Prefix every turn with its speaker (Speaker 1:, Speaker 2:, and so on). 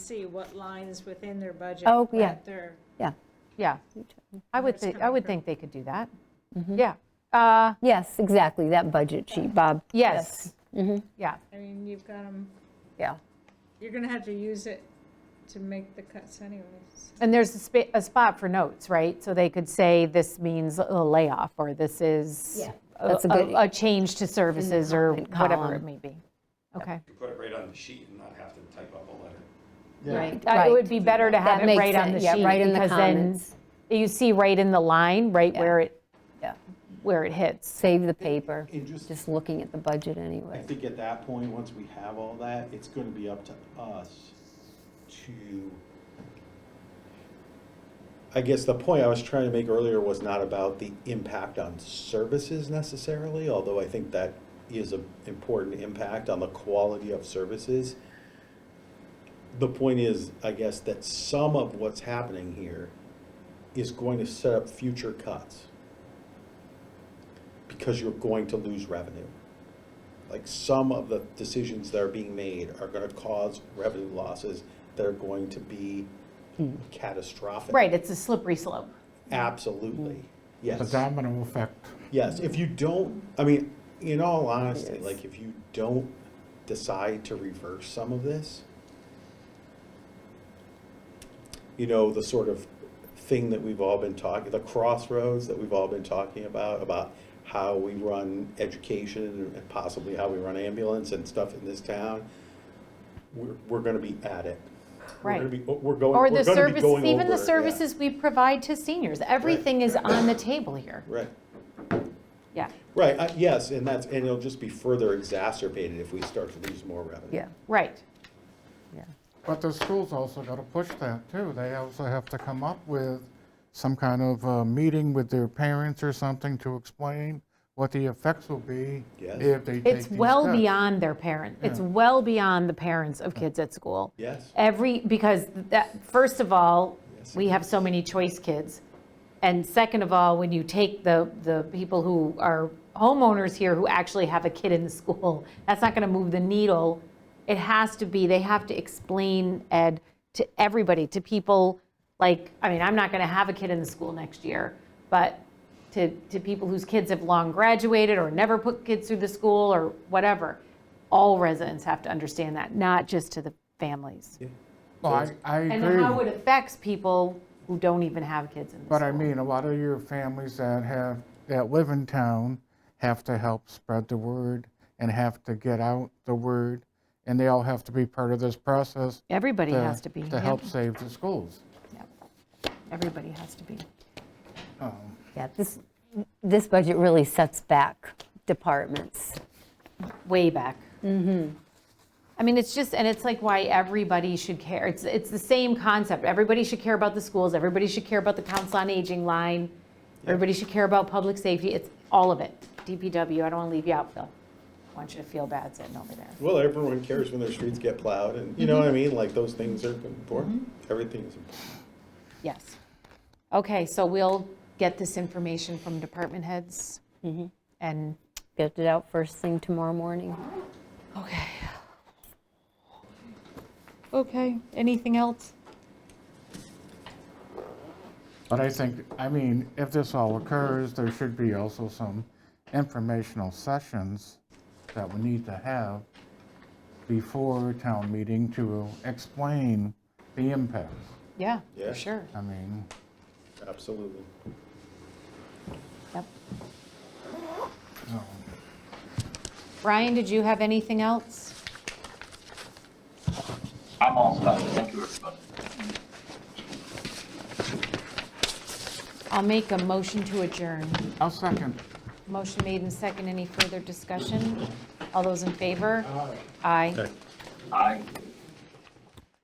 Speaker 1: see what lines within their budget.
Speaker 2: Oh, yeah.
Speaker 1: that they're-
Speaker 2: yeah.
Speaker 3: Yeah, I would
Speaker 1: it's
Speaker 3: think, I
Speaker 1: coming
Speaker 3: would
Speaker 1: from-
Speaker 3: think they could do that. Yeah. Uh,
Speaker 2: Yes, exactly, that budget sheet, Bob.
Speaker 3: Yes. Mm-hmm. Yeah,
Speaker 1: I mean, you've got them,
Speaker 2: Yeah.
Speaker 1: you're going to have to use it to make the cuts anyways.
Speaker 3: and there's a spa, a spot for notes, right? So they could say, this means a layoff, or this is
Speaker 2: Yeah,
Speaker 3: a
Speaker 2: that's a good-
Speaker 3: a- a change to services, or
Speaker 2: comment
Speaker 3: whatever
Speaker 2: column.
Speaker 3: it may be. Okay.
Speaker 4: You put it right on the sheet and not have to type up a letter.
Speaker 2: Right.
Speaker 3: Uh, It would
Speaker 2: Right.
Speaker 3: be better to have
Speaker 2: That
Speaker 3: it
Speaker 2: makes
Speaker 3: right on the
Speaker 2: sense.
Speaker 3: sheet.
Speaker 2: Yeah, right in the
Speaker 3: because then
Speaker 2: comments.
Speaker 3: You see right in the line, right where it,
Speaker 2: Yeah.
Speaker 3: where it hits.
Speaker 2: Save the paper,
Speaker 5: And just-
Speaker 2: just looking at the budget
Speaker 5: I
Speaker 2: anyway.
Speaker 5: think at that point, once we have all that, it's gonna be up to us to. I guess the point I was trying to make earlier was not about the impact on services necessarily, although I think that is an important impact on the quality of services. The point is, I guess, that some of what's happening here is going to set up future cuts. Because you're going to lose revenue like some of the decisions that are being made are gonna cause revenue losses that are going to be catastrophic.
Speaker 3: Right, it's a slippery slope.
Speaker 5: Absolutely,
Speaker 6: The
Speaker 5: yes,
Speaker 6: domino effect.
Speaker 5: yes, if you don't, I mean, in all honesty, like, if you don't decide to reverse some of this, you know, the sort of thing that we've all been talking, the crossroads that we've all been talking about, about how we run education and possibly how we run ambulance and stuff in this town, we're, we're gonna be at it. We're gonna
Speaker 3: Right.
Speaker 5: be, we're going,
Speaker 3: Or
Speaker 5: we're
Speaker 3: the
Speaker 5: gonna be
Speaker 3: services,
Speaker 5: going
Speaker 3: even
Speaker 5: over
Speaker 3: the
Speaker 5: it, yeah.
Speaker 3: services we provide to seniors, everything is on the table here.
Speaker 5: Right,
Speaker 3: Yeah.
Speaker 5: right, uh, yes, and that's, and it'll just be further exacerbated if we start to lose more revenue.
Speaker 2: Yeah,
Speaker 3: Right,
Speaker 2: yeah.
Speaker 6: But the schools also got to push that too. They also have to come up with some kind of uh, meeting with their parents or something to explain what the effects will be
Speaker 5: Yes.
Speaker 6: if they take
Speaker 3: It's
Speaker 6: these
Speaker 3: well
Speaker 6: steps.
Speaker 3: beyond their parent. It's well beyond the parents of kids at school.
Speaker 5: Yes.
Speaker 3: Every, because that, first of all,
Speaker 5: Yes,
Speaker 3: we have so many choice kids. And second of all, when you take the, the people who are homeowners here who actually have a kid in the school, that's not going to move the needle. It has to be, they have to explain, Ed, to everybody, to people, like, I mean, I'm not going to have a kid in the school next year, but to, to people whose kids have long graduated or never put kids through the school or whatever. All residents have to understand that, not just to the families.
Speaker 6: Well, I, I
Speaker 3: And
Speaker 6: agree.
Speaker 3: how it affects people who don't even have kids in the school.
Speaker 6: But I mean, a lot of your families that have, that live in town have to help spread the word and have to get out the word. And they all have to be part of this process.
Speaker 3: Everybody has to be.
Speaker 6: To help save the schools.
Speaker 3: Everybody has to be.
Speaker 2: Yeah, this, this budget really sets back departments.
Speaker 3: Way back. Mm-hmm. I mean, it's just, and it's like why everybody should care. It's, it's the same concept. Everybody should care about the schools. Everybody should care about the council on aging line. Everybody should care about public safety. It's all of it. DPW, I don't want to leave you out, Phil. I want you to feel bad sitting over there.
Speaker 5: Well, everyone cares when their streets get plowed, and you know what I mean? Like, those things are important. Everything is important.
Speaker 3: Yes. Okay, so we'll get this information from department heads. And,
Speaker 2: Get it out first thing tomorrow morning.
Speaker 3: okay. Okay, anything else?
Speaker 6: But I think, I mean, if this all occurs, there should be also some informational sessions that we need to have before town meeting to explain the impacts.
Speaker 3: Yeah,
Speaker 5: Yeah.
Speaker 3: for sure.
Speaker 6: I mean,
Speaker 5: Absolutely.
Speaker 3: Yep.
Speaker 6: so.
Speaker 3: Brian, did you have anything else?
Speaker 7: I'm all set. Thank you, everybody.
Speaker 3: I'll make a motion to adjourn.
Speaker 6: I'll second.
Speaker 3: Motion made and second. Any further discussion? All those in favor? Aye.
Speaker 7: Aye.